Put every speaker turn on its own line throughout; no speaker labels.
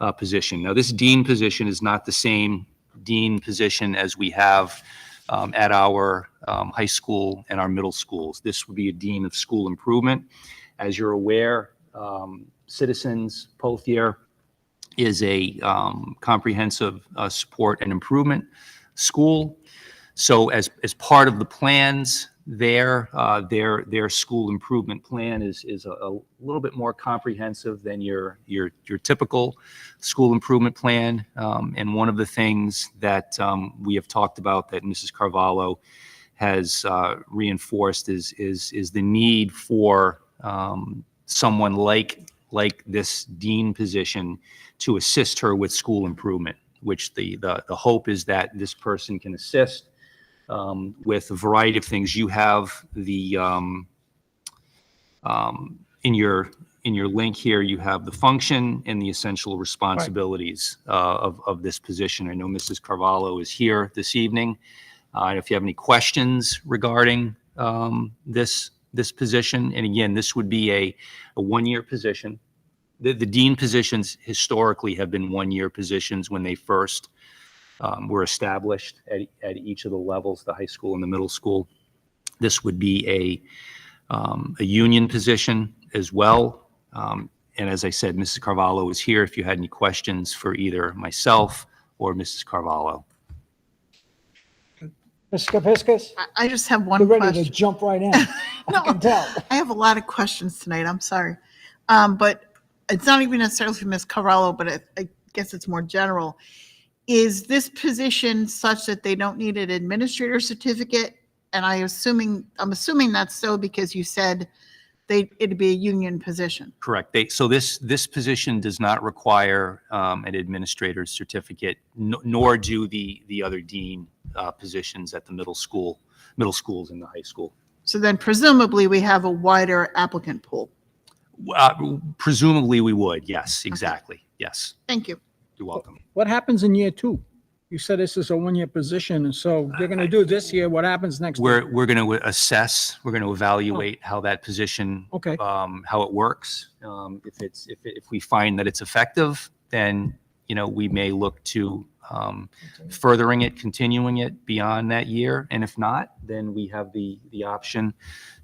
uh, position. Now, this dean position is not the same dean position as we have um, at our um, high school and our middle schools. This would be a dean of school improvement. As you're aware, um, Citizens Pothier is a um, comprehensive uh, support and improvement school. So as, as part of the plans there, uh, their, their school improvement plan is, is a, a little bit more comprehensive than your, your, your typical school improvement plan. Um, and one of the things that, um, we have talked about that Mrs. Carvalho has, uh, reinforced is, is, is the need for, um, someone like, like this dean position to assist her with school improvement, which the, the, the hope is that this person can assist um, with a variety of things. You have the, um, um, in your, in your link here, you have the function and the essential responsibilities uh, of, of this position. I know Mrs. Carvalho is here this evening. Uh, If you have any questions regarding um, this, this position, and again, this would be a, a one-year position. The, the dean positions historically have been one-year positions when they first um, were established at, at each of the levels, the high school and the middle school. This would be a, um, a union position as well. Um, and as I said, Mrs. Carvalho is here if you had any questions for either myself or Mrs. Carvalho.
Ms. Kepiscus,
I- I just have
you're
one
ready to
question.
jump right in. I can tell.
I have a lot of questions tonight, I'm sorry. Um, but it's not even necessarily for Ms. Carvallo, but I, I guess it's more general. Is this position such that they don't need an administrator certificate? And I assuming, I'm assuming that's so because you said they, it'd be a union position.
Correct. They, so this, this position does not require um, an administrator's certificate, no- nor do the, the other dean uh, positions at the middle school, middle schools and the high school.
So then presumably we have a wider applicant pool.
Uh, Presumably, we would, yes, exactly, yes.
Thank you.
You're welcome.
What happens in year two? You said this is a one-year position, and so they're gonna do this year, what happens next? year?
We're, we're going to assess, we're going to evaluate how that position,
Okay,
um, how it works. Um, If it's, if, if we find that it's effective, then, you know, we may look to um, furthering it, continuing it beyond that year. And if not, then we have the, the option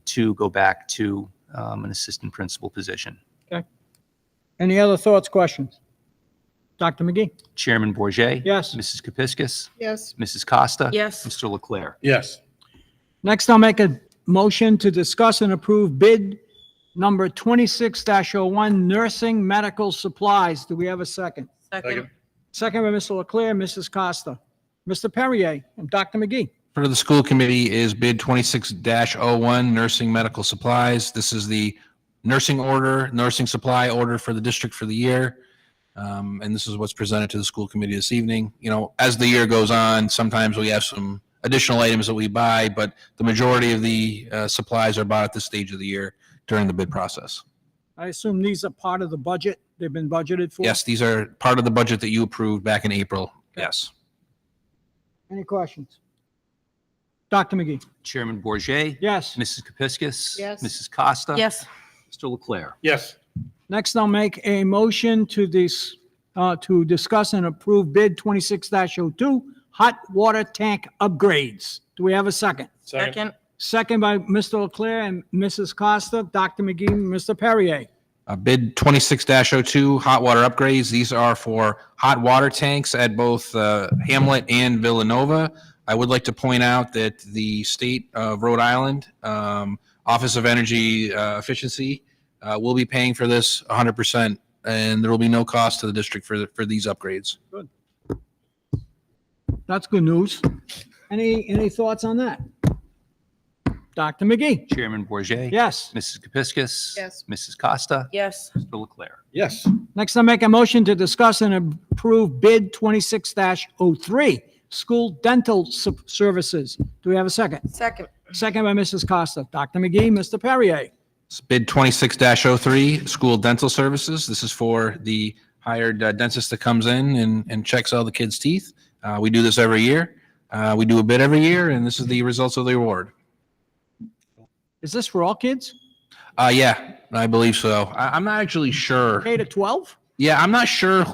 to go back to um, an assistant principal position.
any other thoughts, questions? Dr. McGee?
Chairman Bourget,
Yes.
Mrs. Kepiscus.
Yes.
Mrs. Costa.
Yes,
Mr. Leclerc.
Yes,
Next, I'll make a motion to discuss and approve bid number 26-01, nursing medical supplies. Do we have a second?
second,
Second.
Second by Mr. Leclerc, Mrs. Costa, Mr. Perrier, and Dr. McGee.
For the school committee is bid twenty-six dash oh one, nursing medical supplies. This is the nursing order, nursing supply order for the district for the year. Um, and this is what's presented to the school committee this evening. You know, as the year goes on, sometimes we have some additional items that we buy, but the majority of the, uh, supplies are bought at this stage of the year during the bid process.
I assume these are part of the budget, they've been budgeted for?
Yes, these are part of the budget that you approved back in April. Yes.
Any questions? Dr. McGee?
Chairman Bourget,
Yes.
Mrs. Kepiscus.
Yes.
Mrs. Costa.
yes,
Mr. Leclerc.
yes,
Next, I'll make a motion to this, uh, to discuss and approve bid 26-02, hot water tank upgrades. Do we have a second?
second,
second,
Second by Mr. Leclerc and Mrs. Costa, Dr. McGee, Mr. Perrier.
Uh, bid 26-02, hot water upgrades. These are for hot water tanks at both uh, Hamlet and Villanova. I would like to point out that the state of Rhode Island um, Office of Energy uh, Efficiency uh, will be paying for this 100%, and there will be no cost to the district for, the- for these upgrades.
That's good news. Any, any thoughts on that? Dr. McGee?
Chairman Bourget.
Yes.
Mrs. Kepiscus.
Yes.
Mrs. Costa.
yes,
Mr. Leclerc.
yes,
Next, I'll make a motion to discuss and approve bid 26-03, school dental sup- services. Do we have a second?
second,
Second by Mrs. Costa. Dr. McGee, Mr. Perrier.
Bid 26-03, school dental services. This is for the hired uh, dentist that comes in and, and checks all the kids' teeth. Uh, We do this every year. Uh, We do a bid every year, and this is the results of the award.
Is this for all kids?
Uh, yeah, I believe so. I, I'm not actually sure.
K to 12?
Yeah, I'm not sure